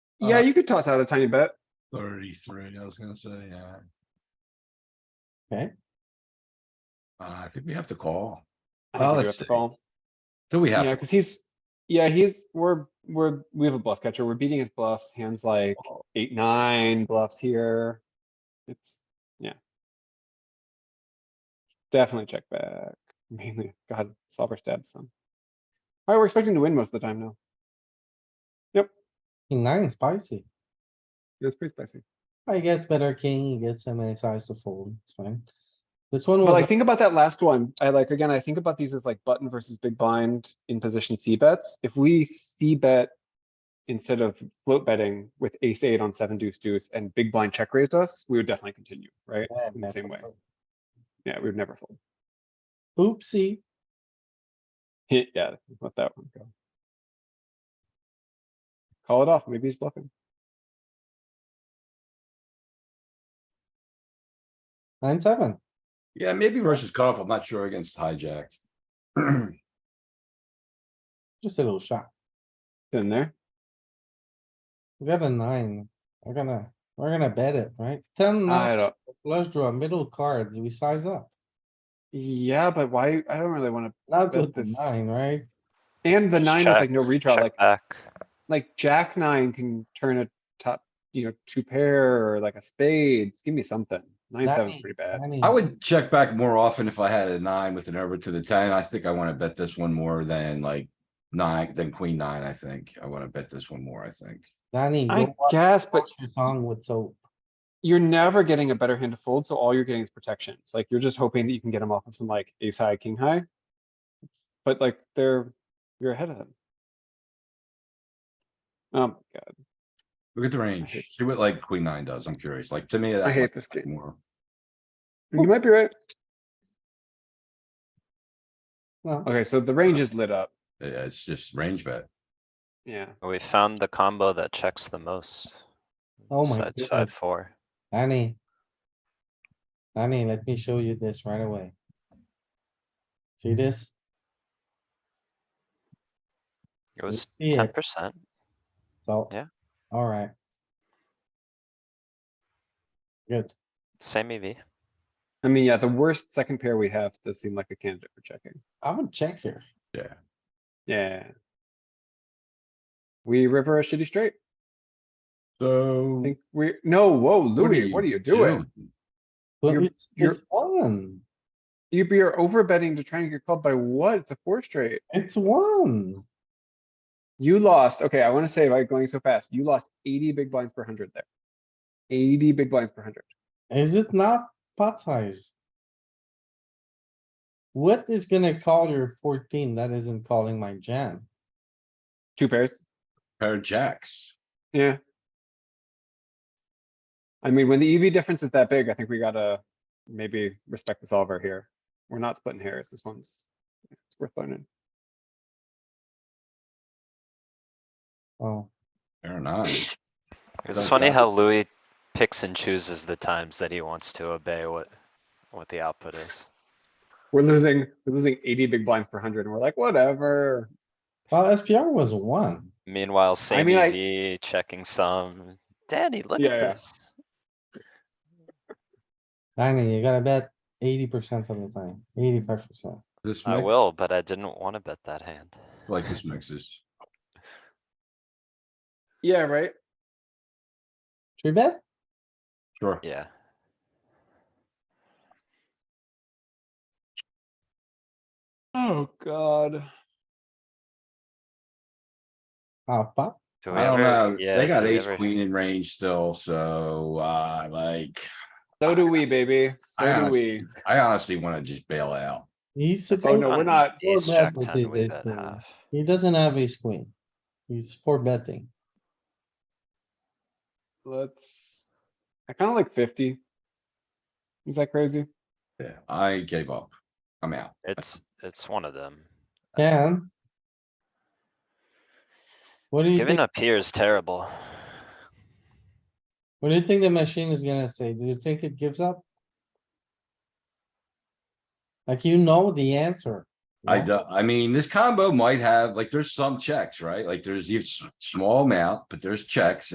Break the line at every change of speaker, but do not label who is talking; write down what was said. Yeah,
Uh,
you could toss out a tiny bit.
Thirty-three, I was gonna say, yeah.
Okay.
Uh, I think we have to call.
I
Well,
think we do have
let's
to
see.
call.
Do we have
Yeah,
to?
cuz he's, yeah, he's, we're, we're, we have a bluff catcher. We're beating his bluffs, hands like
call?
eight, nine bluffs here. It's, yeah. Definitely check back. Mainly, God, solver stabs some. Alright, we're expecting to win most of the time now.
King nine spicy.
Yeah, It's pretty spicy.
I guess better king, he gets so many size to fold, it's fine. This one
But like,
was,
think about that last one. I like, again, I think about these as like button versus big blind in position C bets. If we C bet. Instead of float betting with ace eight on seven deuce deuce and big blind check raised us, we would definitely continue, right?
Yeah,
In the same way.
never.
Yeah, we would never fold.
oopsie,
Yeah, let that one go. Call it off. Maybe he's bluffing.
nine, seven.
Yeah, maybe versus cutoff, I'm not sure against hijack.
Just a little shot.
It's In there.
We got a nine. We're gonna, we're gonna bet it, right?
Mm-hmm.
Ten,
I
nine,
don't.
flush draw, middle card, we size up.
Yeah, but why? I don't really wanna.
Not
Bet
with the
this.
nine, right?
And the
Just
nine with
check-
like no redraw,
Check
like,
back.
like jack nine can turn a top, you know, two pair or like a spades. Give me something. Nine, seven's
Nine.
pretty bad.
I mean,
I would check back more often if I had a nine with an over to the ten. I think I wanna bet this one more than like nine, than queen nine, I think. I wanna bet this one more, I think.
Danny,
I
go wa-
guess, but
wash your tongue with soap.
you're never getting a better hand to fold, so all you're getting is protection. It's like you're just hoping that you can get them off of some like ace high, king high. But like they're, you're ahead of them. Um, God,
Look at the range. See what like queen nine does. I'm curious. Like, to me,
I
that
hate this game.
more.
You might be right.
No,
Okay, so the range is lit up.
Yeah, it's just range bet.
Yeah,
We found the combo that checks the most.
oh my
Besides
goodness,
five, four.
Danny. Danny, let me show you this right away. See this?
It was
Yeah.
ten percent.
So.
Yeah.
Alright. Good.
Same E EV.
I mean, yeah, the worst second pair we have does seem like a candidate for checking.
I would check here.
Yeah.
Yeah. We river a shitty straight.
So.
Think we, no, whoa,
what are
Louis, what are you doing?
But
You're-
it's,
you're-
it's one.
You, you're over betting to try and get called by what? It's a four straight.
It's one.
You lost, okay, I wanna say by going so fast, you lost eighty big blinds per hundred there. Eighty big blinds per hundred.
Is it not pot size? What is gonna call your fourteen that isn't calling my jam?
Two pairs,
Pair of jacks.
yeah. I mean, when the EV difference is that big, I think we gotta maybe respect the solver here. We're not splitting hairs, this one's, it's worth learning.
Oh,
Pair of nine.
It's
Don't
funny
doubt
how Louis picks and chooses the times that he wants to obey what, what the output is.
We're losing, we're losing eighty big blinds per hundred, and we're like, whatever.
well, SPR was one.
Meanwhile, same
mean, I-
EV, checking some. Danny, look
Yeah,
at
yeah.
this.
I mean, you gotta bet eighty percent of the time, eighty-five percent.
This
I
mix,
will, but I didn't wanna bet that hand.
like this mixes.
Yeah, right?
Three bet?
Sure.
Yeah,
Oh, God.
Ah, pop.
do we
I don't
ever?
know.
Yeah.
They got
do we
ace
ever-
queen in range still, so uh like,
So do we, baby,
I
so do we.
honestly- I honestly wanna just bail out.
He's
Oh,
supposed,
no, we're
On
not-
We're
Ace
bad
jack
with
ten,
these
we
ace
bet
queen.
half.
he doesn't have ace queen. He's for betting.
Let's, I kinda like fifty. Is that crazy?
Yeah, I gave up. I'm out.
It's, it's one of them.
Ken? What do you
Giving
think,
up here is terrible.
what do you think the machine is gonna say? Do you think it gives up? Like you know the answer.
I
yeah?
do, I mean, this combo might have, like, there's some checks, right? Like, there's, you've s- small amount, but there's checks